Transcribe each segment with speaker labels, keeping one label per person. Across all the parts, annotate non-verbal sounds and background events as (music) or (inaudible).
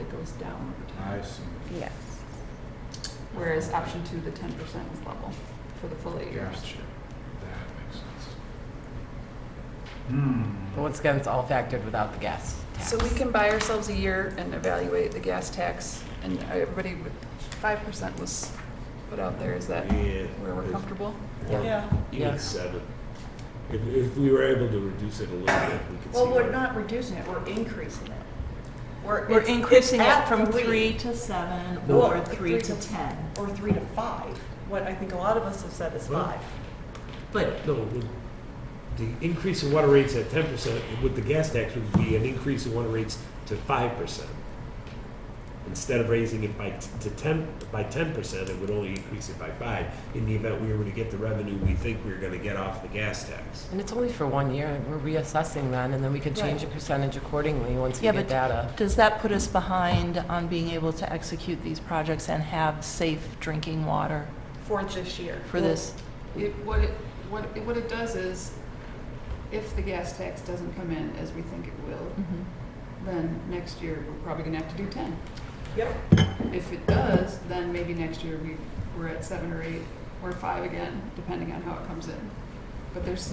Speaker 1: it goes down over time.
Speaker 2: I see.
Speaker 3: Yes.
Speaker 1: Whereas option two, the ten percent was level for the full eight years.
Speaker 2: Gotcha. That makes sense. Hmm.
Speaker 4: But once again, it's all factored without the gas tax.
Speaker 1: So we can buy ourselves a year and evaluate the gas tax, and everybody, five percent was put out there, is that
Speaker 5: Yeah.
Speaker 1: where we're
Speaker 5: It's-
Speaker 1: comfortable?
Speaker 5: or
Speaker 4: Yeah. Yeah.
Speaker 5: Even seven. If, if we were able to reduce it a little bit, we could see.
Speaker 3: Well, we're
Speaker 5: where-
Speaker 3: not reducing it, we're increasing it.
Speaker 1: We're
Speaker 3: it's- it's
Speaker 1: increasing it
Speaker 3: at
Speaker 1: from three to seven
Speaker 3: Well,
Speaker 1: or
Speaker 3: it's
Speaker 1: three to ten.
Speaker 3: Or three to five, what I think a lot of us have said is
Speaker 5: Well-
Speaker 3: five.
Speaker 1: But,
Speaker 5: No, with the increase in water rates at ten percent, with the gas tax, would be an increase in water rates to five percent. Instead of raising it by, t- to ten, by ten percent, it would only increase it by five, in the event we were to get the revenue we think we we're gonna get off the gas tax.
Speaker 4: And it's only for one year, we're reassessing then, and then we can change the percentage accordingly once we
Speaker 6: Yeah,
Speaker 4: get
Speaker 6: but-
Speaker 4: data.
Speaker 6: Does that put us behind on being able to execute these projects and have safe drinking water
Speaker 3: For this year.
Speaker 6: for this?
Speaker 1: It, what it, what, it- what it does is, if the gas tax doesn't come in as we think it will,
Speaker 6: Mhm.
Speaker 1: then next year, we're probably gonna have to do ten.
Speaker 3: Yep.
Speaker 1: If it does, then maybe next year we, we're at seven or eight or five again, depending on how it comes in. But there's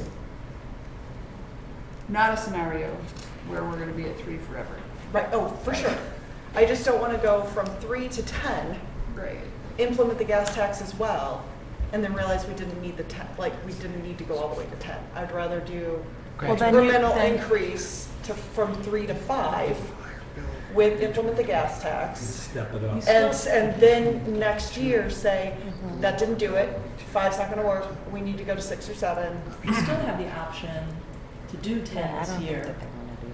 Speaker 1: not a scenario where we're gonna be at three forever.
Speaker 3: Right, oh, for sure. I just don't want to go from three to 10,
Speaker 1: Right.
Speaker 3: implement the gas tax as well, and then realize we didn't need the 10, like, we didn't need to go all the way to 10. I'd rather do
Speaker 4: Well,
Speaker 6: then you-
Speaker 3: incremental
Speaker 6: then-
Speaker 3: increase to, from three to five with, implement the gas tax.
Speaker 5: Step it up.
Speaker 3: And, s- and then next year say, that didn't do it, five's not gonna work, we need to go to six or seven.
Speaker 7: you still have the option to do ten this year.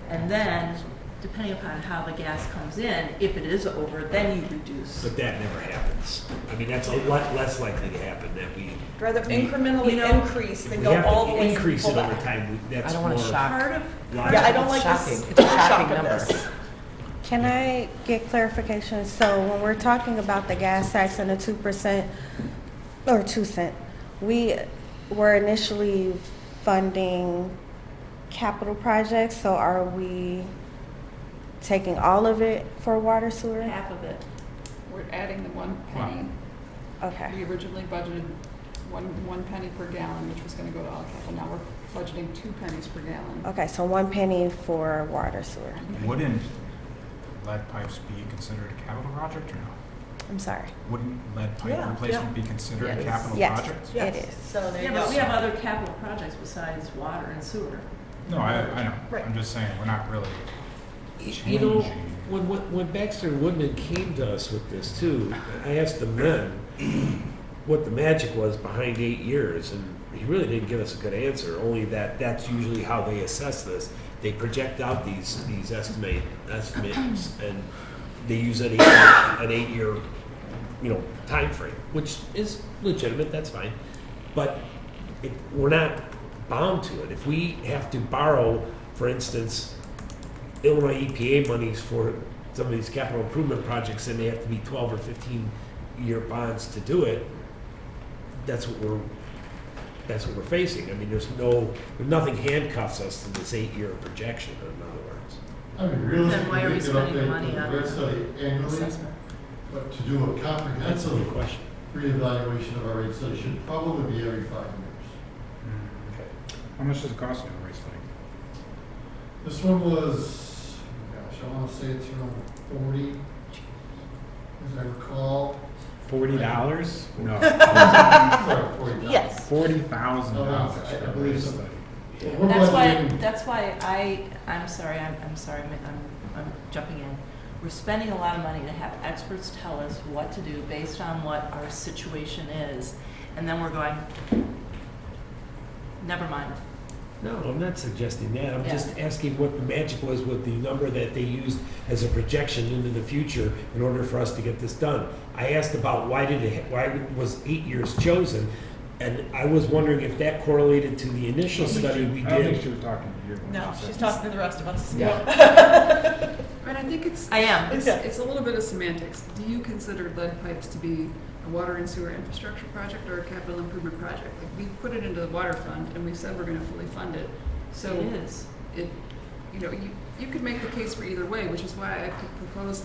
Speaker 7: And then, depending upon how the gas comes in, if it is over, then you reduce.
Speaker 5: But that never happens. I mean, that's a lot less likely to happen, that we,
Speaker 3: I'd Rather
Speaker 5: You-
Speaker 3: incrementally
Speaker 7: you know,
Speaker 3: increase
Speaker 5: if
Speaker 3: than
Speaker 5: we
Speaker 3: go
Speaker 5: have
Speaker 3: all the
Speaker 5: to
Speaker 3: way and
Speaker 5: increase
Speaker 3: pull
Speaker 5: it over
Speaker 3: back.
Speaker 5: time, we-
Speaker 4: I
Speaker 5: that's
Speaker 4: don't
Speaker 5: more.
Speaker 4: want to shock.
Speaker 7: Part of,
Speaker 5: logic.
Speaker 3: Yeah, I don't
Speaker 4: It's
Speaker 3: like this.
Speaker 4: shocking. It's a
Speaker 3: shock
Speaker 4: shocking
Speaker 3: of
Speaker 4: number.
Speaker 3: this.
Speaker 8: Can I get clarification? So when we're talking about the gas tax and the two percent, or two cent, we were initially funding capital projects, so are we taking all of it for water sewer?
Speaker 7: half of it.
Speaker 1: We're adding the one penny. We
Speaker 8: Okay,
Speaker 1: originally budgeted one, one penny per gallon, which was gonna go to all capital. Now we're budgeting two pennies per gallon.
Speaker 8: okay, so one penny for water sewer.
Speaker 2: Wouldn't lead pipes be considered a capital project or no?
Speaker 8: I'm sorry.
Speaker 2: Wouldn't lead pipe
Speaker 3: Yeah,
Speaker 2: replacement be considered a
Speaker 7: Yes.
Speaker 2: capital
Speaker 8: Yes.
Speaker 2: project?
Speaker 8: It
Speaker 3: Yes,
Speaker 8: is.
Speaker 3: So there you
Speaker 7: Yeah, but we
Speaker 3: go.
Speaker 7: have other capital projects besides water and sewer.
Speaker 2: No, I, I know.
Speaker 3: Right.
Speaker 2: I'm just saying, we're not really
Speaker 5: You know,
Speaker 2: changing. Hmm.
Speaker 5: when, when Baxter and Woodman came to us with this too, I asked the men what the magic was behind eight years, and he really didn't give us a good answer, only that that's usually how they assess this. They project out these, these estimate, estimates, and they use an eight, an eight-year, you know, time frame, which is legitimate, that's fine. But it, we're not bound to it. If we have to borrow, for instance, Illinois EPA monies for some of these capital improvement projects, and they have to be twelve or fifteen-year bonds to do it, that's what we're, that's what we're facing. I mean, there's no, nothing handcuffs us to this eight-year projection, in other words.
Speaker 9: I mean,
Speaker 7: Then
Speaker 9: realistically,
Speaker 7: why are we
Speaker 9: they could
Speaker 7: spending the
Speaker 9: update
Speaker 7: money on
Speaker 9: grid study annually,
Speaker 7: assessment?
Speaker 9: but to do a
Speaker 5: That's a good
Speaker 9: comprehensive
Speaker 5: question.
Speaker 9: reevaluation of our rate study should probably be every five years.
Speaker 2: How much does it cost to do a race study?
Speaker 9: This one was, oh gosh, I want to say it's around forty, as I
Speaker 7: (laughs)
Speaker 9: recall.
Speaker 2: Forty dollars? No. (laughs)
Speaker 9: Sorry, forty.
Speaker 3: Yes.
Speaker 2: Forty thousand dollars
Speaker 9: I- I
Speaker 2: for a
Speaker 9: believe
Speaker 2: race
Speaker 9: so.
Speaker 2: study.
Speaker 9: Well, we're
Speaker 7: That's why,
Speaker 9: budgeting-
Speaker 7: that's why I, I'm sorry, I'm, I'm sorry, I'm, I'm- I'm jumping in. We're spending a lot of money to have experts tell us what to do based on what our situation is, and then we're going, never mind.
Speaker 5: No, I'm not suggesting that. I'm
Speaker 7: Yeah.
Speaker 5: just asking what the magic was with the number that they used as a projection into the future in order for us to get this done. I asked about why did it, why was eight years chosen? And I was wondering if that correlated to the initial study we
Speaker 2: I don't think
Speaker 5: did.
Speaker 2: she was talking to you. when
Speaker 3: No,
Speaker 2: she said
Speaker 3: she's
Speaker 2: that.
Speaker 3: talking to the rest of us.
Speaker 2: Yeah.
Speaker 1: And I think it's.
Speaker 7: I am.
Speaker 1: It's, it's a little bit of semantics. Do you consider lead pipes to be a water and sewer infrastructure project or a capital improvement project? Like, we put it into the water fund and we said we're gonna fully fund it.
Speaker 7: It
Speaker 1: So
Speaker 7: is.
Speaker 1: it, you know, you, you could make the case for either way, which is why I could propose